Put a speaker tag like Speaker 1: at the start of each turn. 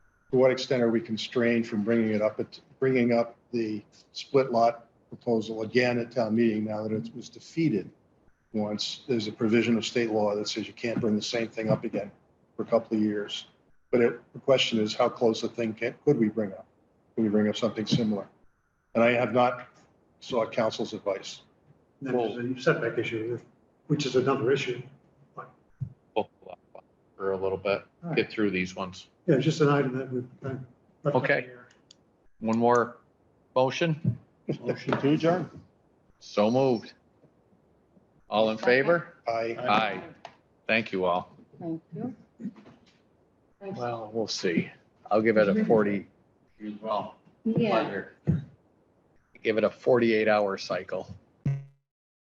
Speaker 1: to what extent are we constrained from bringing it up, at- bringing up the split lot proposal again at town meeting now that it was defeated? Once, there's a provision of state law that says you can't bring the same thing up again for a couple of years. But it, the question is, how close a thing can, could we bring up? Can we bring up something similar? And I have not sought council's advice.
Speaker 2: Then there's a setback issue, which is another issue.
Speaker 3: pull up for a little bit, get through these ones.
Speaker 2: Yeah, it's just an item that we've kind of. left up
Speaker 3: Okay.
Speaker 2: here.
Speaker 3: One more motion,
Speaker 1: Motion to adjourn.
Speaker 3: so moved. All in favor?
Speaker 1: Aye.
Speaker 3: Aye. Thank you all.
Speaker 4: Thank you. Thanks.
Speaker 3: Well, we'll see. I'll give it a forty. Well,
Speaker 4: Yeah,
Speaker 3: Give it a forty-eight hour cycle.